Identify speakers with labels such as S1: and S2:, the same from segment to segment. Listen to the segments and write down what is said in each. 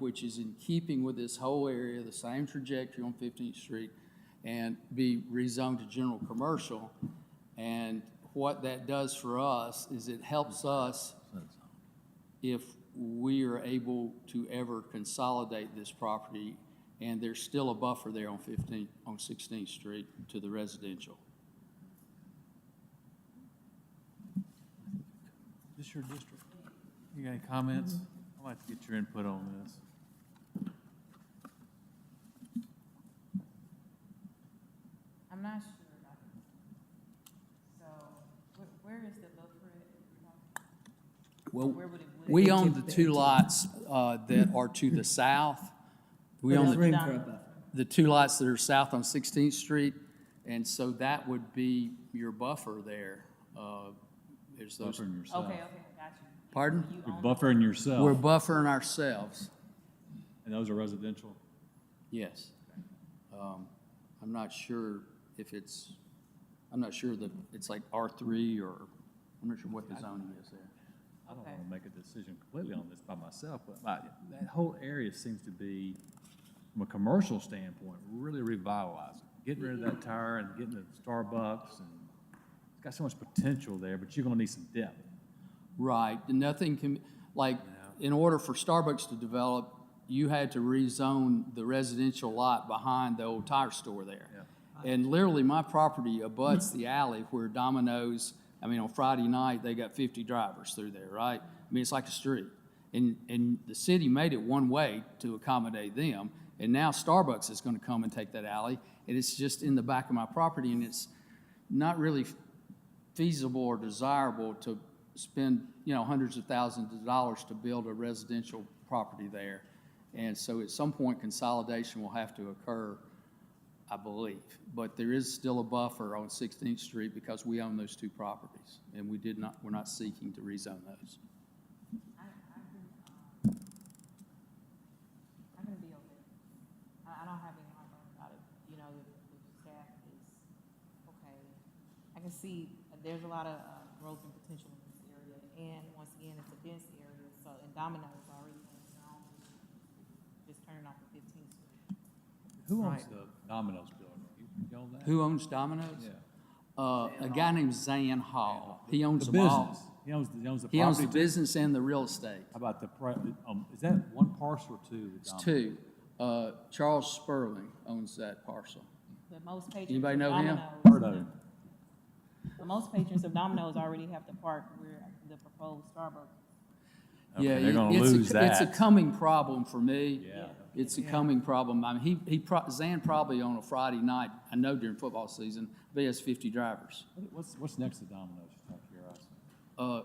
S1: which is in keeping with this whole area, the same trajectory on Fifteenth Street, and be rezoned to general commercial. And what that does for us is it helps us if we are able to ever consolidate this property, and there's still a buffer there on 15, on 16th Street to the residential.
S2: This your district? You got any comments?
S3: Mm-hmm.
S2: I'd like to get your input on this.
S4: I'm not sure. about it. So, wh- where is the buffer?
S1: Well,
S4: Where would it? would-
S1: we own the two lots uh, that are to the south. We
S4: But
S1: own
S4: it's
S1: the,
S4: not-
S1: the two lots that are south on 16th Street, and so that would be your buffer there. Uh, There's those,
S3: Buffering yourself.
S4: Okay, okay, got you.
S1: pardon?
S4: You
S3: You're
S4: own-
S3: buffering
S1: We're
S3: yourself,
S1: buffering ourselves,
S3: and those are residential.
S1: yes. Um, I'm not sure if it's, I'm not sure that it's like R3 or, I'm not sure what the zoning is there.
S3: I don't
S4: Okay.
S3: want to make a decision completely on this by myself, but like, that whole area seems to be, from a commercial standpoint, really revitalizing. Getting rid of that tire and getting the Starbucks and it's got so much potential there, but you're gonna need some depth.
S1: Right, and nothing can, like, in order for Starbucks to develop, you had to rezone the residential lot behind the old tire store there. And literally, my property abuts the alley where Domino's, I mean, on Friday night, they got fifty drivers through there, right? I mean, it's like a street. And, and the city made it one way to accommodate them, and now Starbucks is gonna come and take that alley, and it's just in the back of my property, and it's not really feasible or desirable to spend, you know, hundreds of thousands of dollars to build a residential property there. And so at some point, consolidation will have to occur, I believe. But there is still a buffer on 16th Street because we own those two properties, and we did not, we're not seeking to rezone those.
S4: I, I can, um, I can be open. I, I don't have any hard feelings about it, you know, if, if staff is okay. I can see there's a lot of, uh, growth and potential in this area, and once again, it's a dense area, so, and Domino's already in its own, just turning off the fifteenth street.
S3: Who owns
S4: Right.
S3: the Domino's building? You- You own that?
S1: Who owns Domino's?
S3: Yeah.
S1: Uh, A guy named Zan Hall. He owns them all.
S3: He owns, he owns the
S1: He owns the
S3: property.
S1: business and the real estate.
S3: How about the, pri- um, is that one parcel or two? with
S1: It's
S3: Domino's?
S1: two. Uh, Charles Sperling owns that parcel.
S4: But most patrons.
S1: Anybody
S4: of
S1: know him?
S4: Domino's-
S3: Heard of him.
S4: But most patrons of Domino's already have to park where the proposed Starbucks.
S3: Okay,
S1: Yeah,
S3: They're
S1: it-
S3: gonna
S1: it's a-
S3: lose
S1: It's
S3: that.
S1: a coming problem for me.
S3: Yeah.
S1: It's a coming problem. I mean, he, he, pro- Zan probably on a Friday night, I know during football season, he has fifty drivers.
S3: What- What's, what's next to Domino's, just out of curiosity?
S1: Uh,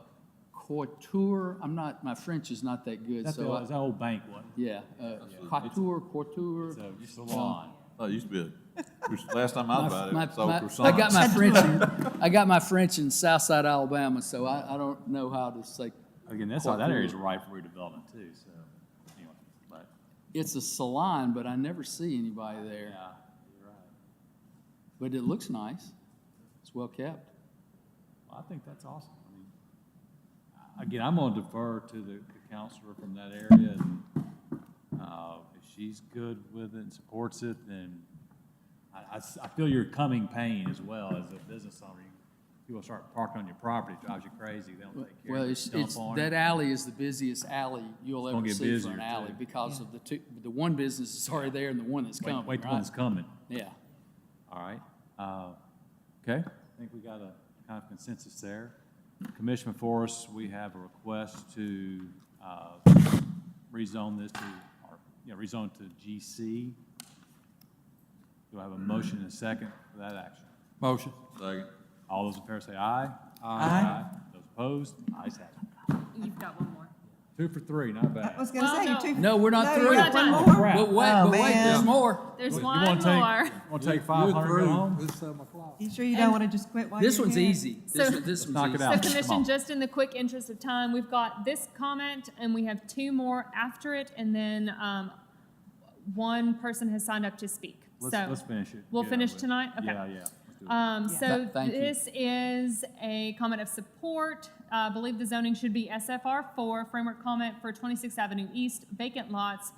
S1: Couture, I'm not, my French is not that good,
S3: That's
S1: so,
S3: the,
S1: I-
S3: that old bank one.
S1: yeah. uh, Couture, couture.
S3: So you salon.
S5: Oh, it used to be, a- which- last time I was about it,
S1: My-
S5: it was
S1: my-
S5: old
S1: I got
S5: croissant.
S1: my French, in- I got my French in Southside Alabama, so I, I don't know how to say,
S3: Again, that's all, that area's ripe for redevelopment too, so anyway, but
S1: it's a salon, but I never see anybody
S3: yeah,
S1: there.
S3: you're right.
S1: But it looks nice. It's well kept.
S3: Well, I think that's awesome. I mean, I- again, I'm gonna defer to the the counselor from that area. and, Uh, if she's good with it and supports it, then I, I s- I feel your coming pain as well as a business owner. You- People start parking on your property, it drives you crazy. They don't take care
S1: Well,
S3: of
S1: it's,
S3: it,
S1: it's,
S3: dump on
S1: that
S3: it.
S1: alley is the busiest alley you'll
S3: gonna
S1: ever
S3: get
S1: see for
S3: busier,
S1: an
S3: too.
S1: alley because of the two, the one business is already there and the one that's
S3: Wait,
S1: coming,
S3: wait till
S1: right?
S3: one's coming.
S1: Yeah.
S3: All right, uh, okay, I think we got a kind of consensus there. Commissioner Forrest, we have a request to, uh, rezone this to, or, you know, rezone to GC. Do I have a motion and a second for that action?
S5: Motion. Second.
S3: All those in favor say aye. Aye. Those opposed, ayes have it.
S6: You've got one more.
S3: Two for three, not bad.
S7: I was gonna
S6: Well,
S7: say,
S6: no.
S7: you two.
S1: No, we're not
S7: No,
S1: through.
S7: you got one
S6: We're not
S7: more?
S1: But wait,
S7: Oh,
S1: but wait, there's
S7: man.
S1: more.
S6: There's
S3: You wanna
S6: one
S3: take-
S6: more.
S3: Want to take five hundred, and go home?
S7: You sure you don't wanna just quit while you're
S1: This one's
S7: here?
S1: easy. This,
S6: So-
S1: one- this one's easy.
S3: Knock it out.
S6: So
S3: Come on.
S6: commission, just in the quick interest of time, we've got this comment and we have two more after it and then um, one person has signed up to speak.
S3: Let's,
S6: So-
S3: let's finish it.
S6: we'll
S3: Get it
S6: finish
S3: over with.
S6: tonight? Okay.
S3: Yeah, yeah. let's do it.
S6: Um, so
S1: Th- thank you.
S6: this is a comment of support. Uh, believe the zoning should be SFR four, framework comment for twenty-sixth Avenue East, vacant lots,